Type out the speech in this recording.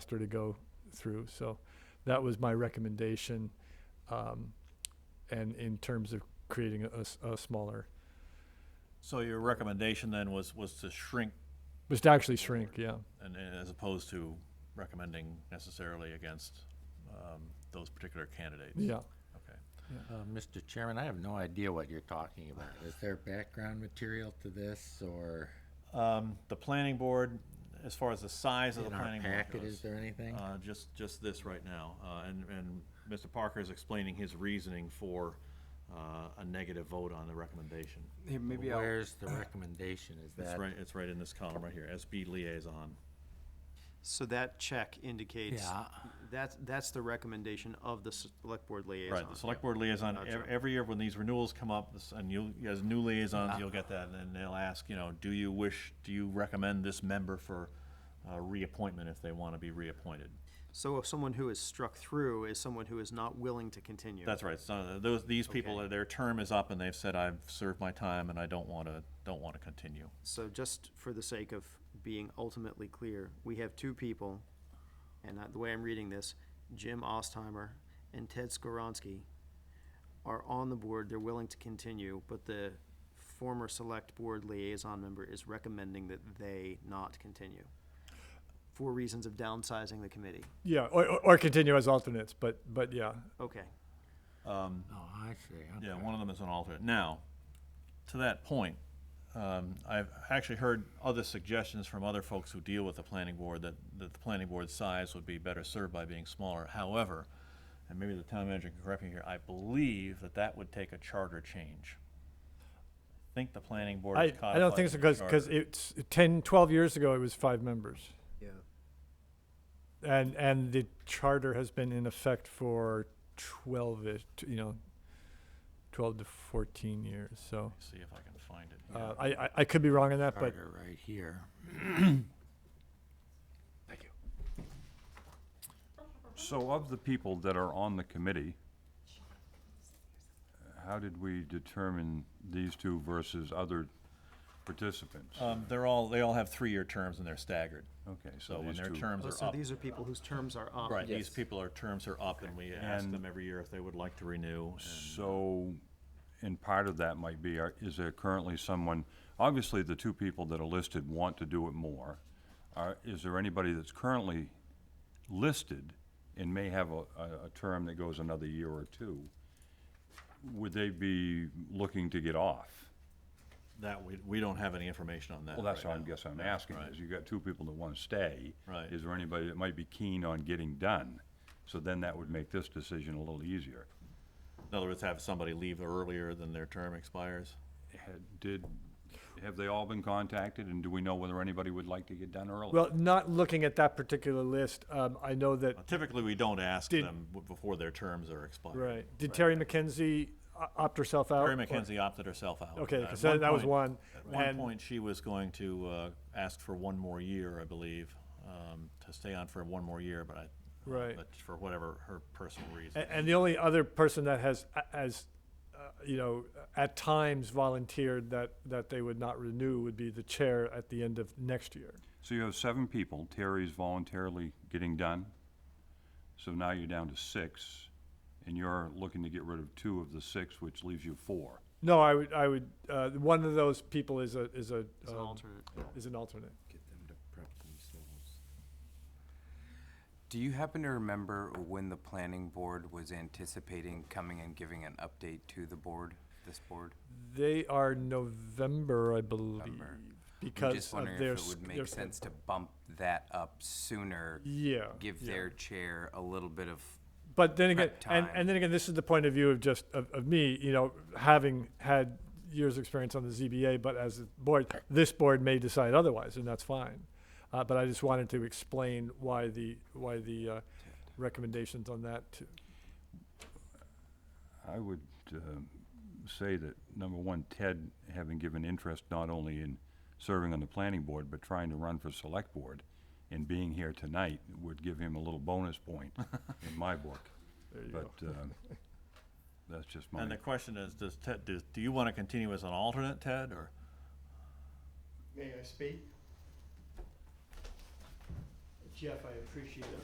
faster to go through. So that was my recommendation. Um, and in terms of creating a, s- a smaller, So your recommendation then was, was to shrink was to actually shrink, yeah. and, and as opposed to recommending necessarily against, um, those particular candidates? Yeah. Okay. Uh, Mr. Chairman, I have no idea what you're talking about. Is there background material to this or Um, the planning board, as far as the size of the in our planning board packet, is goes, there anything? uh, just, just this right now, uh, and, and Mr. Parker is explaining his reasoning for, uh, a negative vote on the recommendation. Hey, maybe I'll, Where's the recommendation? Is It's that? right, it's right in this column right here, SB liaison. so that check indicates, Yeah. that's, that's the recommendation of the select board liaison. Right, the select board liaison, Gotcha. ev- every year when these renewals come up, this- and you, as new liaisons, you'll get that, and they'll ask, you know, do you wish, do you recommend this member for uh, reappointment if they want to be reappointed? So if someone who is struck through is someone who is not willing to continue. That's right, so those, these people, their term is up, and they've said, I've served my time, and I don't want to, don't want to continue. So just for the sake of being ultimately clear, we have two people, and I- the way I'm reading this, Jim Ostheimer and Ted Skoronsky are on the board, they're willing to continue, but the former select board liaison member is recommending that they not continue for reasons of downsizing the committee. Yeah, or, or- or continue as alternates, but, but yeah, Okay, Oh, I see. okay. Yeah, one of them is an alternate. Now, to that point, um, I've actually heard other suggestions from other folks who deal with the planning board that, that the planning board's size would be better served by being smaller. However, and maybe the town manager can correct me here, I believe that that would take a charter change. I think the planning board I, is codified. I don't think so, in the because, because charter. it's 10, 12 years ago, it was five members. Yeah. And, and the charter has been in effect for 12-ish, you know, 12 to 14 years, so. See if I can find it. here. Uh, I, I, I could be wrong on that, but Carter right here. So of the people that are on the committee, how did we determine these two versus other participants? Um, they're all, they all have three-year terms and they're staggered. Okay, so So when these their two- terms Oh, are so up, these are people whose terms are up. right, these people, are terms are up and we ask And- them every year if they would like to renew. and- So, and part of that might be, are- is there currently someone, obviously, the two people that are listed want to do it more. Are, is there anybody that's currently listed and may have a, a, a term that goes another year or two? Would they be looking to get off? That, we, we don't have any information on that. Well, that's right what I now. guess I'm Yeah, asking, right. is you got two people that want to stay. Right. Is there anybody that might be keen on getting done? So then that would make this decision a little easier. In other words, have somebody leave earlier than their term expires? Had- Did, have they all been contacted, and do we know whether anybody would like to get done early? Well, not looking at that particular list, um, I know that, Typically, we don't ask Did- them w- before their terms are expired. right, did Terry McKenzie o- opt herself out? Terry or- McKenzie opted herself out. Okay, At 'cause that- that was point- one, At one and- point, she was going to, uh, ask for one more year, I believe, um, to stay on for one more year, but I. Right. But for whatever her personal reason. And, and the only other person that has, as, you know, at times volunteered that, that they would not renew would be the chair at the end of next year. So you have seven people, Terry's voluntarily getting done, so now you're down to six, and you're looking to get rid of two of the six, which leaves you four. No, I would, I would, uh, one of those people is a, is a. As an um, alternate. Is an alternate. Do you happen to remember when the planning board was anticipating coming and giving an update to the board, this board? They are November, I believe, I'm because just of wondering their. if it s- would their make s- sense to bump that up sooner, Yeah. give yeah. their chair a little bit of, But then again, prep and, time. and then again, this is the point of view of just, of, of me, you know, having had years' of experience on the ZBA, but as a board, this board may decide otherwise, and that's fine. Uh, but I just wanted to explain why the, why the, uh, recommendations on that, too. I would um, say that, number one, Ted, having given interest not only in serving on the planning board, but trying to run for select board, and being here tonight would give him a little bonus point in my book. there you go. But um, that's just my, And the question is, does Ted, do, do you want to continue as an alternate, Ted, or? May I speak? Jeff, I appreciate